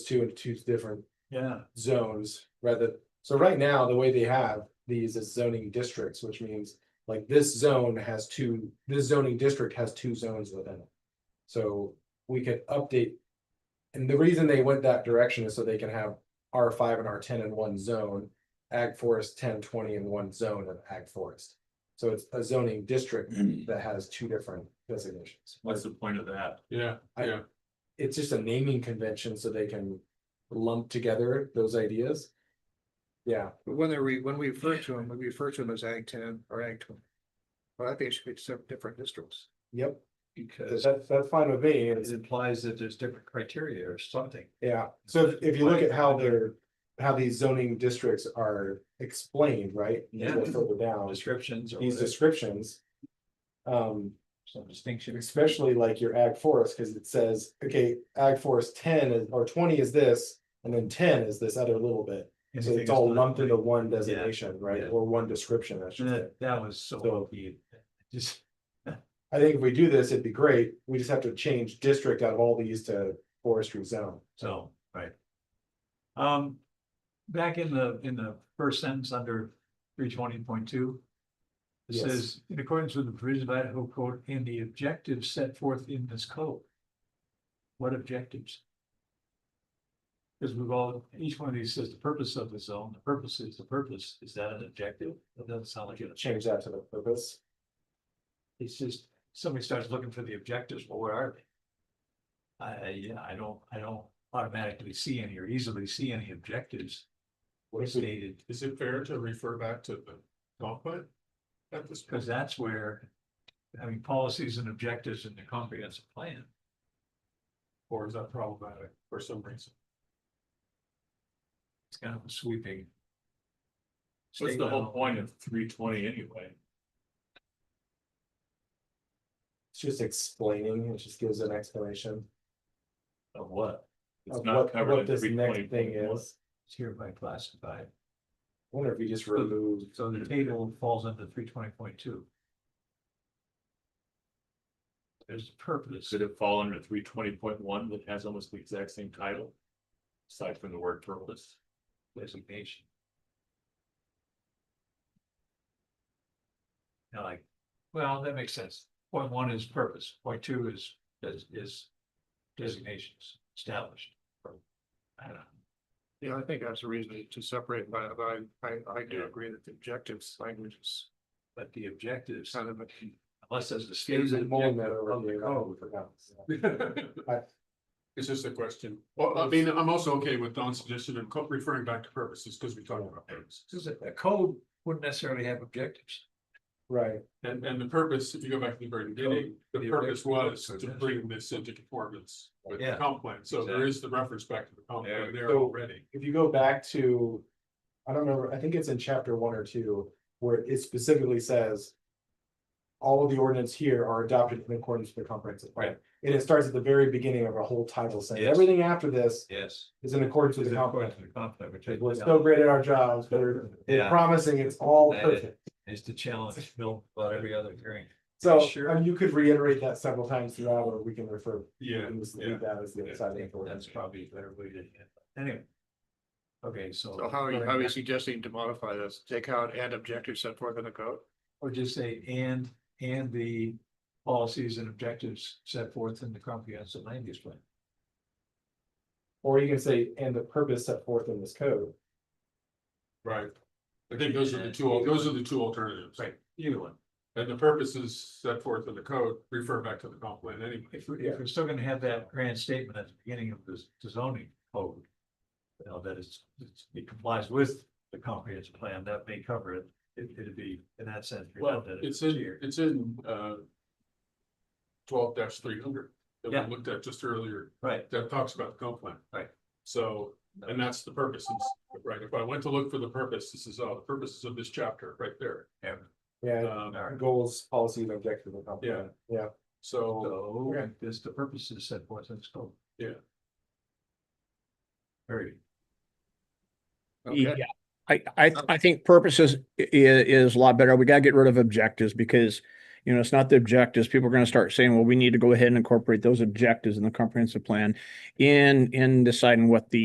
two into two different Yeah, zones rather. So right now, the way they have these is zoning districts, which means like this zone has two, this zoning district has two zones within it. So we could update. And the reason they went that direction is so they can have R five and R ten in one zone, ag forest 10, 20 in one zone of ag forest. So it's a zoning district that has two different designations. what's the point of that? Yeah, I- yeah. It's just a naming convention so they can lump together those ideas. Yeah. But when they re, when we refer to them, we refer to them as ag ten or ag twenty. Well, I think it should be separate different districts. Yep, Because that's, that's fine with me, it it's, implies that there's different criteria or something. yeah, so if- if you look at how they're, how these zoning districts are explained, right? You go Yeah. Further down, Descriptions or these descriptions. Um, some distinction. especially like your ag forest, because it says, okay, ag forest ten is- or twenty is this, and then ten is this other little bit. So it's all lumped into one designation, right, yeah. Mm-hmm. or one description, I should say. That, that was so So- lucky. Just, I think if we do this, it'd be great, we just have to change district out of all these to forestry zone. so, right. Um, back in the, in the first sentence under three twenty point two. It Yes. says, in accordance with the provisions of Idaho code and the objectives set forth in this code. What objectives? Because we've all, each one of these says the purpose of the zone, the purpose is the purpose, is that an objective? That doesn't sound like it. change that to the purpose. It's just, somebody starts looking for the objectives, well, where are they? I, I- yeah, I don't, I don't automatically see any or easily see any objectives What is it, stated, is it fair to refer back to the dogfight? At this, because point? that's where, I mean, policies and objectives in the comprehensive plan. or is that problematic for some reason? It's kind of a sweeping. What's the whole point of three twenty anyway? It's just explaining, it just gives an explanation Of what? It's of not what, covered in what this next 320.1. thing is. It's hereby classified. I Wonder if we just remove, So the table falls under three twenty point two. There's a purpose. Should it fall under three twenty point one that has almost the exact same title? Aside from the word purpose, designation. Now, like, well, that makes sense. Point one is purpose, point two is, is, is designations established. or- I don't know. Yeah, I think that's a reason to separate, but I, I, I do Yeah. agree that the objectives language is but the objectives, kind of a. unless there's a there's a stated more that objective of the overview. code, it's just a question. Well, I mean, I'm also okay with Don's suggestion of co- referring back to purposes, because we talked about purposes. Because a a code wouldn't necessarily have objectives. Right, And, and the purpose, if you go back to the very beginning, the purpose was to bring this into conformance with the Yeah. comp plan, so there is the reference back to the comp plan there So- already. if you go back to, I don't remember, I think it's in chapter one or two, where it specifically says. All of the ordinance here are adopted in accordance with the comprehensive plan, and it starts at the very beginning of a whole title saying, Yes. everything after this Yes. is in accordance with the comp plan. It We're so great at our jobs, we're Yeah, promising it's all That is- perfect. is to challenge Bill about every other hearing. So Sure. um, you could reiterate that several times throughout, or we can refer. Yeah, and just yeah. Leave that as the Yeah, other side I of the think that's ordinance. probably a better way to, anyway. Okay, so. So how are you, how are you suggesting to modify this? Take out and objectives set forth in the code? Or just say, and, and the policies and objectives set forth in the comprehensive land use plan. Or you can say, and the purpose set forth in this code. Right. I think those are the two, al- those are the two alternatives. Right, either one. And the purposes set forth in the code refer back to the comp plan anyway. If we, if we're still gonna have that grand statement at the beginning of this the zoning code. You know, that it's, it's- it complies with the comprehensive plan, that may cover it, it, it'd be in that sense. Well, redundant if it's in, here. it's in, uh. Twelve three hundred that Yeah. we looked at just earlier. Right, that talks about the comp plan. Right. So, and that's the purposes, right? If I went to look for the purpose, this is all the purposes of this chapter right there. yeah, Yeah, Um, all right. goals, policies, objectives. and comp plan. Yeah, so, So, Okay. this, the purpose is set forth in scope. Yeah. Very, Okay, Yeah, I, I, I think purposes i- i- is a lot better. We gotta get rid of objectives because, you know, it's not the objectives. People are gonna start saying, well, we need to go ahead and incorporate those objectives in the comprehensive plan in, in deciding what the